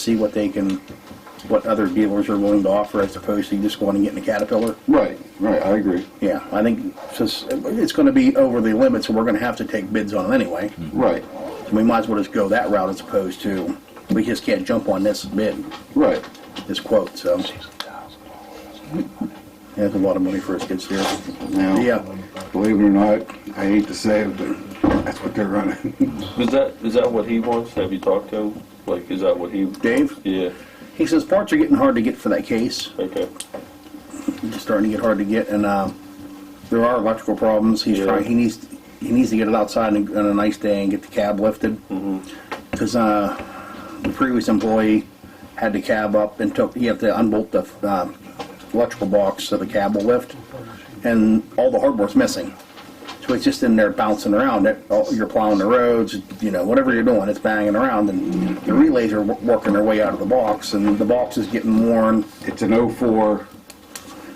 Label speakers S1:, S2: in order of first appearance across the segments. S1: see what they can, what other dealers are willing to offer as opposed to just going and getting a Caterpillar.
S2: Right, right, I agree.
S1: Yeah, I think since it's going to be over the limit, so we're going to have to take bids on it anyway.
S2: Right,
S1: We might as well just go that route as opposed to, we just can't jump on this bid,
S2: right.
S1: this quote, so. That's a lot of money for us kids here.
S2: Now,
S1: Yeah.
S2: believe it or not, I hate to say it, but that's what they're running.
S3: Is that, is that what he wants? Have you talked to him? Like, is that what he?
S1: Dave?
S3: Yeah,
S1: He says parts are getting hard to get for that case.
S3: okay.
S1: It's starting to get hard to get, and uh, there are electrical problems. He's
S3: Yeah.
S1: trying. He needs he needs to get it outside on on a nice day and get the cab lifted. Because uh, the previous employee had the cab up and took. You have to unbolt the um, electrical box so the cab will lift, and all the hardware's missing. So it's just in there bouncing around. It, all- you're plowing the roads, you know, whatever you're doing, it's banging around, and the relays are wo- working their way out of the box, and the box is getting worn.
S2: It's an '04.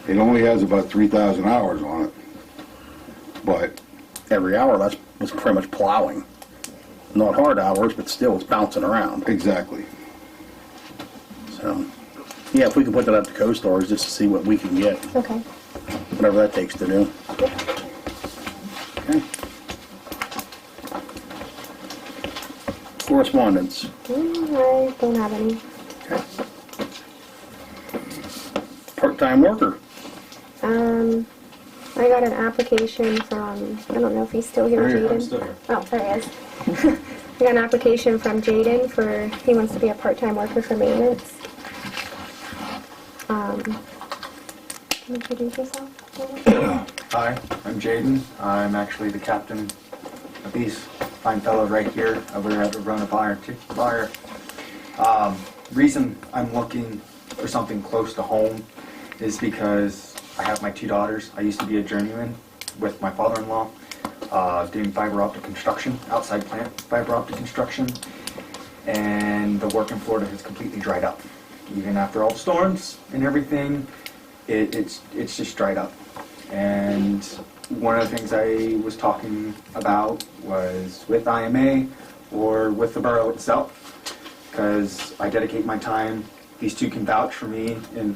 S2: It only has about 3,000 hours on it. But,
S1: every hour that's was pretty much plowing. Not hard hours, but still it's bouncing around.
S2: exactly.
S1: So, yeah, if we can put that up to co-stores just to see what we can get,
S4: Okay.
S1: whatever that takes to do. Okay. Correspondence.
S4: Mm, I don't have any.
S1: Okay. Part-time worker.
S4: Um, I got an application from, I don't know if he's still here,
S2: Here he is.
S4: Jaden. Oh, there he is. I got an application from Jaden for, he wants to be a part-time worker for maintenance. Um, can you introduce yourself?
S5: Hi, I'm Jaden. I'm actually the captain of these fine fellow right here over at Rona Fire. Fire. Um, reason I'm looking for something close to home is because I have my two daughters. I used to be a journeyman with my father-in-law, uh, doing fiber optic construction, outside plant fiber optic construction, and the work in Florida has completely dried up. Even after all the storms and everything, it, it's it's just dried up. And one of the things I was talking about was with IMA or with the borough itself, because I dedicate my time. These two can vouch for me, and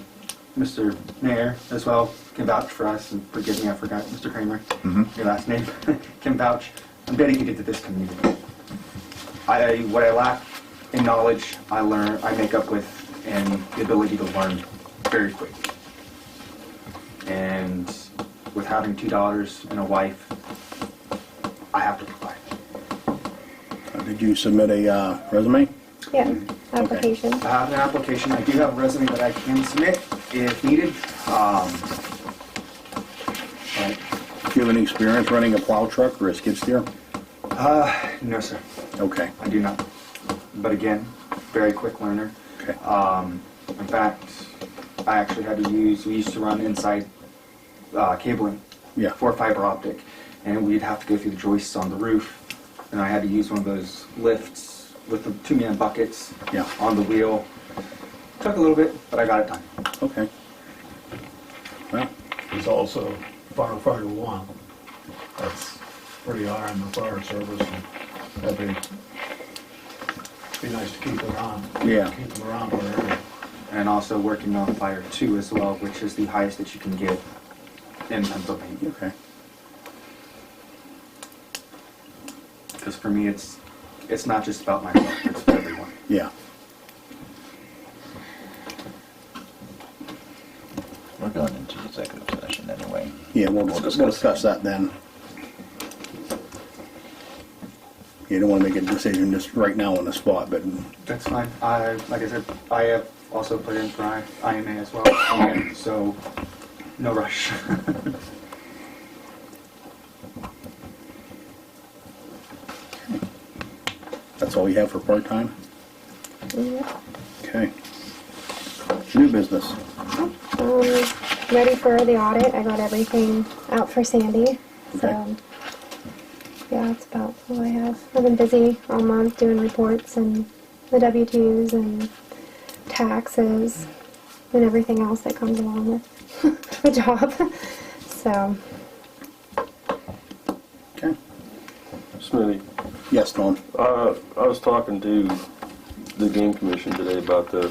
S5: Mr. Mayor as well can vouch for us. And forgive me, I forgot Mr. Kramer, your last name, can vouch. I'm dedicated to this community. I what I lack in knowledge, I learn, I make up with, and the ability to learn very quick. And with having two daughters and a wife, I have to provide.
S1: Uh, Did you submit a uh, resume?
S4: Yeah, application.
S5: I have an application. I do have a resume that I can submit if needed. Um, but,
S1: Do you have any experience running a plow truck or a skid steer?
S5: uh, no, sir,
S1: Okay,
S5: I do not. But again, very quick learner.
S1: okay. Uh,
S5: Um, in fact, I actually had to use, we used to run inside uh, cabling
S1: Yeah.
S5: for fiber optic, and we'd have to go through the joists on the roof, and I had to use one of those lifts with the two man buckets
S1: Yeah.
S5: on the wheel. Took a little bit, but I got it done.
S1: Okay. Well,
S6: He's also firefighter one. That's pretty high in the fire service. and That'd be, be nice to keep around.
S1: Yeah.
S6: Keep them around wherever.
S5: And also working on fire two as well, which is the highest that you can get in Pennsylvania.
S1: okay.
S5: Because for me, it's it's not just about myself; it's for everyone.
S1: Yeah.
S7: We're going into executive session anyway.
S1: Yeah, we'll, we'll
S7: Let's discuss
S1: discuss that then. You don't want to make a decision just right now on the spot, but,
S5: That's fine. I, like I said, I have also put in for I- IMA as well, so no rush.
S1: that's all you have for part-time?
S4: Yep.
S1: Okay. New business.
S4: Um, ready for the audit. I got everything out for Sandy.
S1: Okay.
S4: So, yeah, that's about all I have. I've been busy all month doing reports and the W-2s and taxes and everything else that comes along with the job. So,
S1: Okay.
S3: Smitty,
S1: Yes, Norm?
S3: uh, I was talking to the game commission today about the